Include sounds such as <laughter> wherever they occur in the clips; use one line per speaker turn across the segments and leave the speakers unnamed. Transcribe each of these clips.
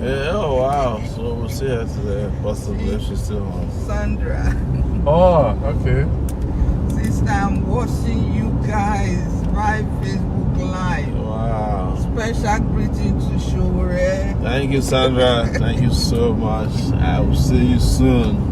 Oh,
oh,
was here today. Busted left. She's still home.
Sandra,
Oh, okay.
sister, I'm watching you guys live Facebook Live.
Wow.
Special greeting to Shore.
Thank you, Sandra. Thank you so much. I will see you soon.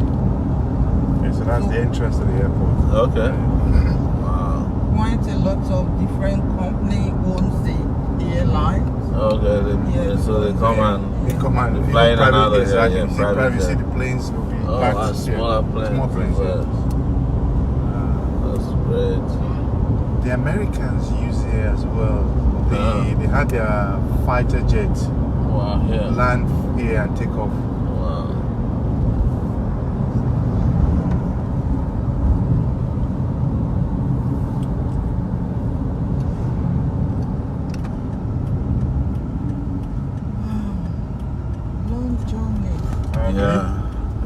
Okay, so that's the entrance to the airport.
Okay. Wow.
Quite a lot of different company owns the airline.
Okay. Then,
Yeah.
So they come and
They come and
Fly in and
private
out of
jets,
here,
like,
yeah,
you see
private
private- you see
jet.
the planes will be
oh,
packed.
a
yeah,
smaller plane.
Small planes. yeah.
That's great.
The Americans use it as well. They
Yeah.
they had their fighter jet
Wow. Yeah.
land here and take off.
Wow.
Ah, Long journey.
Okay.
Yeah.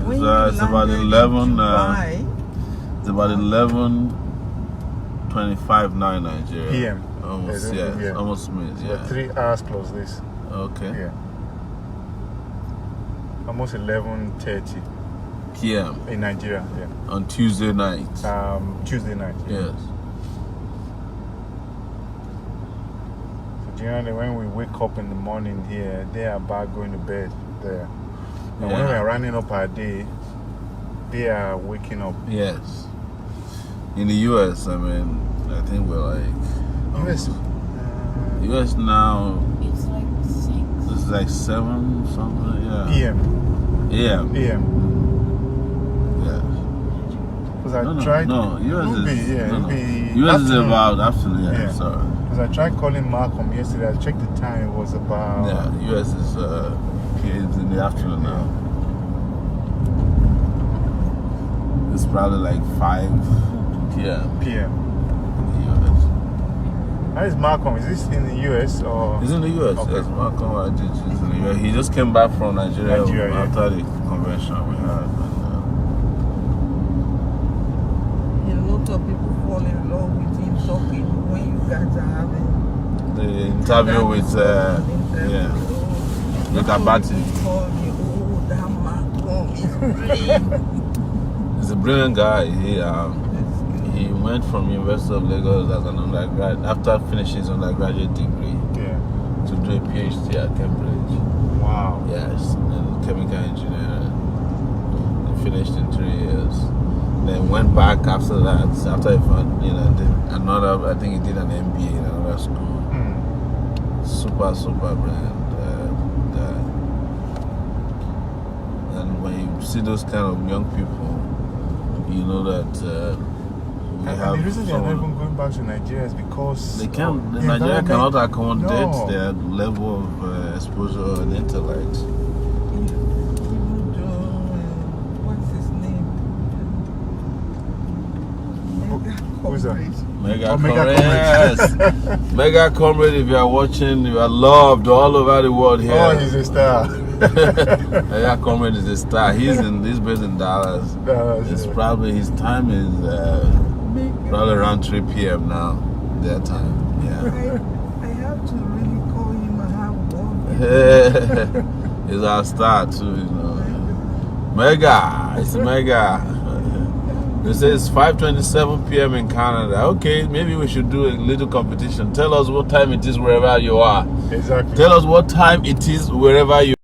When
It's,
you
uh, it's about
landed in
eleven. Uh,
Dubai,
it's about eleven twenty-five now in Nigeria.
PM.
Almost.
Yeah,
Yeah.
yeah.
Almost mid.
So
Yeah.
Three hours plus this.
Okay.
Yeah. Almost eleven thirty
PM
in Nigeria. Yeah.
on Tuesday night.
Um, Tuesday night.
Yes.
So generally, when we wake up in the morning here, they are back going to bed there. And when
Yeah.
we are running up our day, they are waking up.
Yes. In the US, I mean, I think we're like
US. uh,
US now
It's like six.
this is like seven something. Yeah.
PM.
Yeah.
PM.
Yes.
Because I
No, no,
tried.
no.
It'll
US is
be, yeah,
no,
it'll
no.
be
US is
afternoon.
about afternoon. Yeah.
Yeah.
Sorry.
Because I tried calling Malcolm yesterday. I checked the time. It was about.
yeah. US is uh, it's in the afternoon now. It's probably like five p.m.
PM.
in the US.
How is Malcolm? Is this in the US or?
He's in the U.S.
Okay.
Yes, Malcolm Ajit is in the U.S. He just came back from Nigeria,
Nigeria, yeah.
after the convention we had. And,
a lot of people fall in love with him talking when you guys are having
uh, the interview with uh, yeah, with Abati.
Oh, that Malcolm is brilliant.
He's a brilliant guy. He um, he went from University of Lagos as an undergrad after finishing his undergraduate degree
Yeah.
to do a PhD at Cambridge.
Wow.
Yes, and chemical engineer. And finished in three years. Then went back after that. After I found, you know, did another. I think he did an MBA in another school.
Hmm.
Super, super brilliant. Uh, guy. And when you see those kind of young people, you know that uh, we
And,
have.
and the Oh, reason they are not
someone-
even going back to Nigeria is because
they
of
can't.
the
Nigeria
environment.
cannot accommodate
No.
their level of uh, exposure and intellect.
Even though, uh, what's his name?
Who-
Mega
who's that?
corporate.
Mega,
Oh, mega
comrade.
comrade. <laughs>
Yes. mega comrade, if you are watching, you are loved all over the world here.
Oh, he's a star.
<laughs>
<laughs>
mega comrade is a star. He's in he's based in Dallas.
Uh,
It's probably his time is uh,
Mega.
probably around 3 p.m. now, their time. Yeah.
I, I have to really call him and have one.
<laughs> he's our star too, you know. Mega, it's mega. <laughs> They say it's 5:27 p.m. in Canada. Okay, maybe we should do a little competition. Tell us what time it is wherever you are.
exactly.
Tell us what time it is wherever you